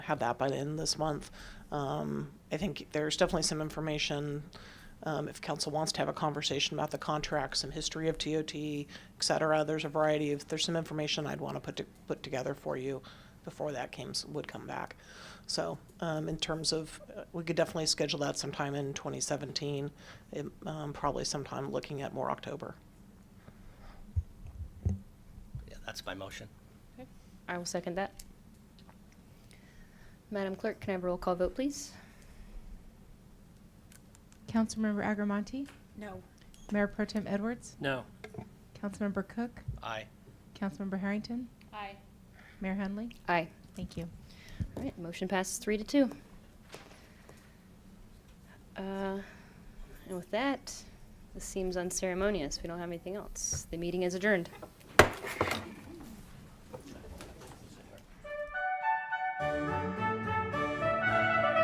had that by the end of this month. Um, I think there's definitely some information, um, if council wants to have a conversation about the contract, some history of TOT, et cetera. There's a variety of, there's some information I'd want to put, to- put together for you before that came, would come back. So, um, in terms of, uh, we could definitely schedule that sometime in 2017, it, um, probably sometime looking at more October. Yeah, that's my motion. Okay. I will second that. Madam Clerk, can I have a roll call vote, please? Councilmember Agramonte, No. Mayor Pro Tem Edwards, No. Councilmember Cook, Aye. Councilmember Harrington, Aye. Mayor Henley. Aye. Thank you. All right, motion passes three to two. Uh, And with that, this seems unceremonious. We don't have anything else. The meeting is adjourned.